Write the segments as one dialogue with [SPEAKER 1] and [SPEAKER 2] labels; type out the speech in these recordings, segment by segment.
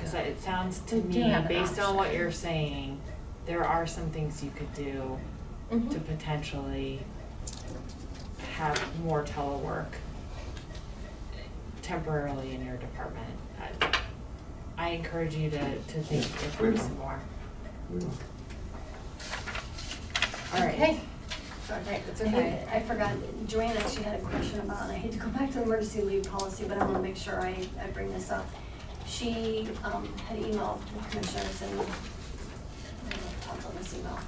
[SPEAKER 1] Cause I- it sounds to
[SPEAKER 2] We do
[SPEAKER 1] me,
[SPEAKER 2] have an
[SPEAKER 1] based on what
[SPEAKER 2] option.
[SPEAKER 1] you're saying, there are some things you could do to
[SPEAKER 3] Mm-hmm.
[SPEAKER 2] Mhm.
[SPEAKER 1] potentially have more telework temporarily in your department. I- I encourage you to, to think it through some more. All right.
[SPEAKER 2] Okay.
[SPEAKER 1] All right, that's
[SPEAKER 3] I
[SPEAKER 1] okay.
[SPEAKER 3] think- I forgot, Joanne actually had a question about, and I hate to go back to the emergency leave policy, but I want to make sure I, I bring this up. She um, had emailed the commissioners and, I don't know, talked on this email,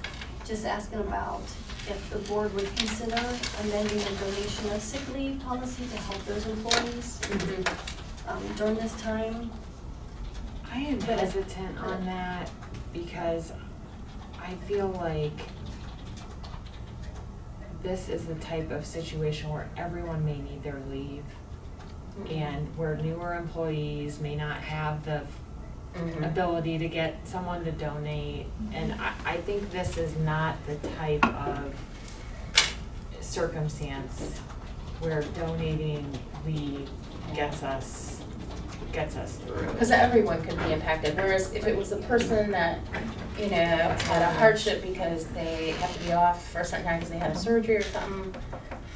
[SPEAKER 3] just asking about if the board would consider amending the donation of sick leave policy to help those employees
[SPEAKER 2] Mm-hmm.
[SPEAKER 3] um, during this time.
[SPEAKER 1] I am
[SPEAKER 3] But-
[SPEAKER 1] hesitant on that because I feel like this is the type of situation where everyone may need their leave
[SPEAKER 2] Mm-hmm.
[SPEAKER 1] and where newer employees may not have the
[SPEAKER 3] Mm-hmm.
[SPEAKER 2] Mhm.
[SPEAKER 1] ability to get someone to donate. And I, I think this is not the type of circumstance where donating leave gets us, gets us through.
[SPEAKER 2] Because everyone could be impacted, whereas if it was a person that, you know, had a hardship because they have to be off for a certain time because they had a surgery or something.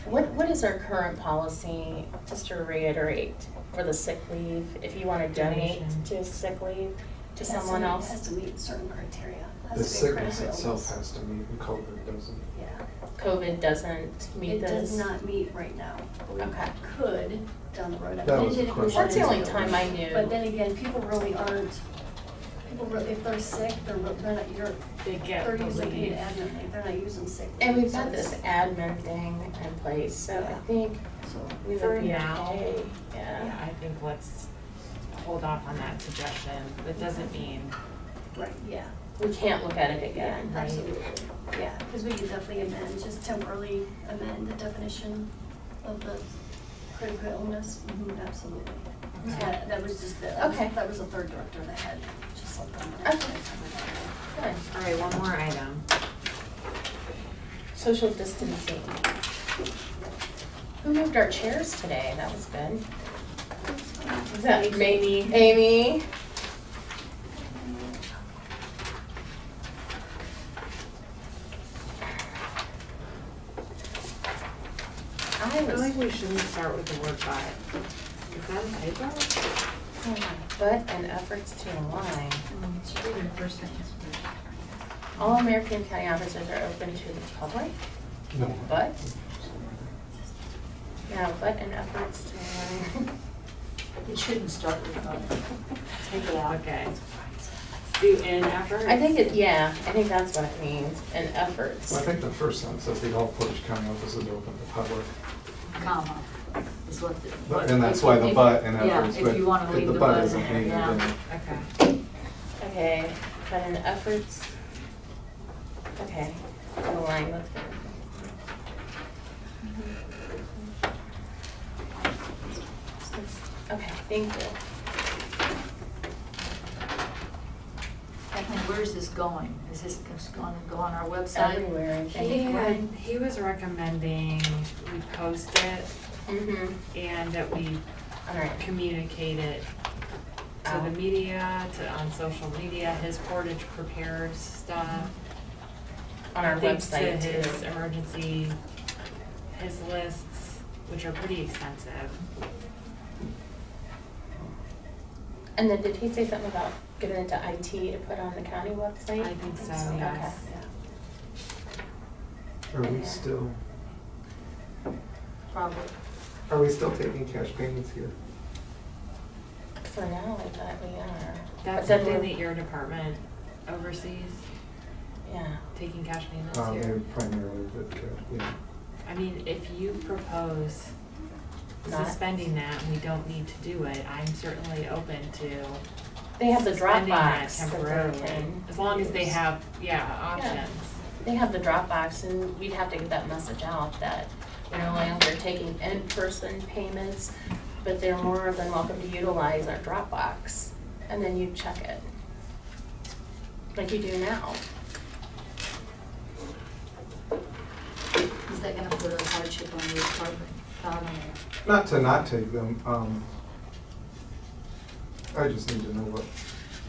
[SPEAKER 2] What, what is our current policy, just to reiterate, for the sick leave, if you want to donate
[SPEAKER 1] Donation.
[SPEAKER 2] to sick leave to
[SPEAKER 3] It has
[SPEAKER 2] someone
[SPEAKER 3] meet-
[SPEAKER 2] else?
[SPEAKER 3] Has to meet certain criteria. Has
[SPEAKER 4] The
[SPEAKER 3] to be a
[SPEAKER 4] sickness
[SPEAKER 3] critical
[SPEAKER 4] itself
[SPEAKER 3] illness.
[SPEAKER 4] has to meet, and COVID doesn't.
[SPEAKER 3] Yeah.
[SPEAKER 2] COVID doesn't meet
[SPEAKER 3] It
[SPEAKER 2] this?
[SPEAKER 3] does not meet right now. but we
[SPEAKER 2] Okay.
[SPEAKER 3] Could down the road. I
[SPEAKER 4] That
[SPEAKER 3] mean, it
[SPEAKER 4] was the
[SPEAKER 3] did if we wanted
[SPEAKER 4] question.
[SPEAKER 2] That's the only
[SPEAKER 3] to.
[SPEAKER 2] time I knew.
[SPEAKER 3] But then again, people really aren't, people really, if they're sick, they're, re- they're not, you're,
[SPEAKER 1] They get
[SPEAKER 3] they're
[SPEAKER 1] the
[SPEAKER 3] using paid
[SPEAKER 1] leave.
[SPEAKER 3] admin, leave. they're not using sick.
[SPEAKER 2] And
[SPEAKER 3] leave,
[SPEAKER 2] we've
[SPEAKER 3] so
[SPEAKER 2] got this
[SPEAKER 3] it's-
[SPEAKER 2] admin thing in place, so I
[SPEAKER 3] Yeah.
[SPEAKER 2] think
[SPEAKER 3] So,
[SPEAKER 2] we
[SPEAKER 1] For
[SPEAKER 2] would be
[SPEAKER 1] now.
[SPEAKER 2] okay,
[SPEAKER 1] Yeah,
[SPEAKER 2] yeah.
[SPEAKER 1] I think let's hold off on that suggestion. That doesn't mean,
[SPEAKER 3] right, yeah,
[SPEAKER 2] We can't look at it again, right?
[SPEAKER 3] absolutely.
[SPEAKER 2] Yeah.
[SPEAKER 3] Because we could definitely amend, just temporarily amend the definition of the critical illness. Mhm, Absolutely.
[SPEAKER 1] Okay.
[SPEAKER 3] That, that was just, the- that was,
[SPEAKER 2] Mm-hmm. Okay.
[SPEAKER 3] that was the third director that had just something.
[SPEAKER 2] Okay. Good.
[SPEAKER 1] all right, one more item.
[SPEAKER 2] Social distancing. Who moved our chairs today? That was good. Was that Amy? Amy? I
[SPEAKER 1] I feel
[SPEAKER 2] was
[SPEAKER 1] like we shouldn't start with the word but. Is that a typo?
[SPEAKER 2] pulling my butt and efforts to align. All American County offices are open to the public,
[SPEAKER 4] No.
[SPEAKER 2] but, yeah, but and efforts to align.
[SPEAKER 5] It shouldn't start with that.
[SPEAKER 1] Take it out. Okay. Do in effort?
[SPEAKER 2] I think it, yeah, I think that's what it means, and efforts.
[SPEAKER 4] Well, I think the first sentence says the all Portage County offices are open to public,
[SPEAKER 5] comma, is what the.
[SPEAKER 4] But- and that's why the but and efforts,
[SPEAKER 5] Yeah, if you wanna
[SPEAKER 4] but
[SPEAKER 5] leave
[SPEAKER 4] the
[SPEAKER 5] the
[SPEAKER 4] but
[SPEAKER 5] but in
[SPEAKER 4] isn't
[SPEAKER 5] there,
[SPEAKER 4] needed.
[SPEAKER 5] yeah.
[SPEAKER 1] Okay.
[SPEAKER 2] Okay, but an efforts, okay, align with. Okay, thank you.
[SPEAKER 5] And where's this going? Is this gonna go on our website?
[SPEAKER 2] Everywhere, I
[SPEAKER 1] He
[SPEAKER 2] think.
[SPEAKER 1] had, he was recommending we post it
[SPEAKER 2] Mm-hmm,
[SPEAKER 1] and that we
[SPEAKER 2] all right.
[SPEAKER 1] communicate it to the
[SPEAKER 2] Out.
[SPEAKER 1] media, to, on social media, his Portage prepares stuff.
[SPEAKER 2] On our
[SPEAKER 1] Links to
[SPEAKER 2] website
[SPEAKER 1] his
[SPEAKER 2] too.
[SPEAKER 1] emergency, his lists, which are pretty extensive.
[SPEAKER 2] And then did he say something about giving it to IT to put on the county
[SPEAKER 1] I
[SPEAKER 2] website?
[SPEAKER 1] think so,
[SPEAKER 3] Okay.
[SPEAKER 1] yes.
[SPEAKER 3] Yeah.
[SPEAKER 4] Are we still,
[SPEAKER 5] Probably.
[SPEAKER 4] are we still taking cash payments here?
[SPEAKER 2] For now, I thought we are.
[SPEAKER 1] That's
[SPEAKER 2] But then
[SPEAKER 1] something
[SPEAKER 2] we're-
[SPEAKER 1] that your department oversees,
[SPEAKER 2] Yeah.
[SPEAKER 1] taking cash payments
[SPEAKER 4] Uh,
[SPEAKER 1] here?
[SPEAKER 4] maybe primarily, but, cash, yeah.
[SPEAKER 1] I mean, if you propose
[SPEAKER 2] Not-
[SPEAKER 1] suspending that, and we don't need to do it, I'm certainly open to
[SPEAKER 2] They have the
[SPEAKER 1] suspending that
[SPEAKER 2] Dropbox that
[SPEAKER 1] temporarily.
[SPEAKER 2] they can.
[SPEAKER 1] As long as they
[SPEAKER 2] use.
[SPEAKER 1] have, yeah, options.
[SPEAKER 2] They have the Dropbox and we'd have to get that message out that we're no longer taking in-person payments, but they're more than welcome to utilize our Dropbox. And then you check it. Like you do now.
[SPEAKER 5] Is that gonna put a hardship on your department? Not on
[SPEAKER 4] Not to not take them, um, I just need to know what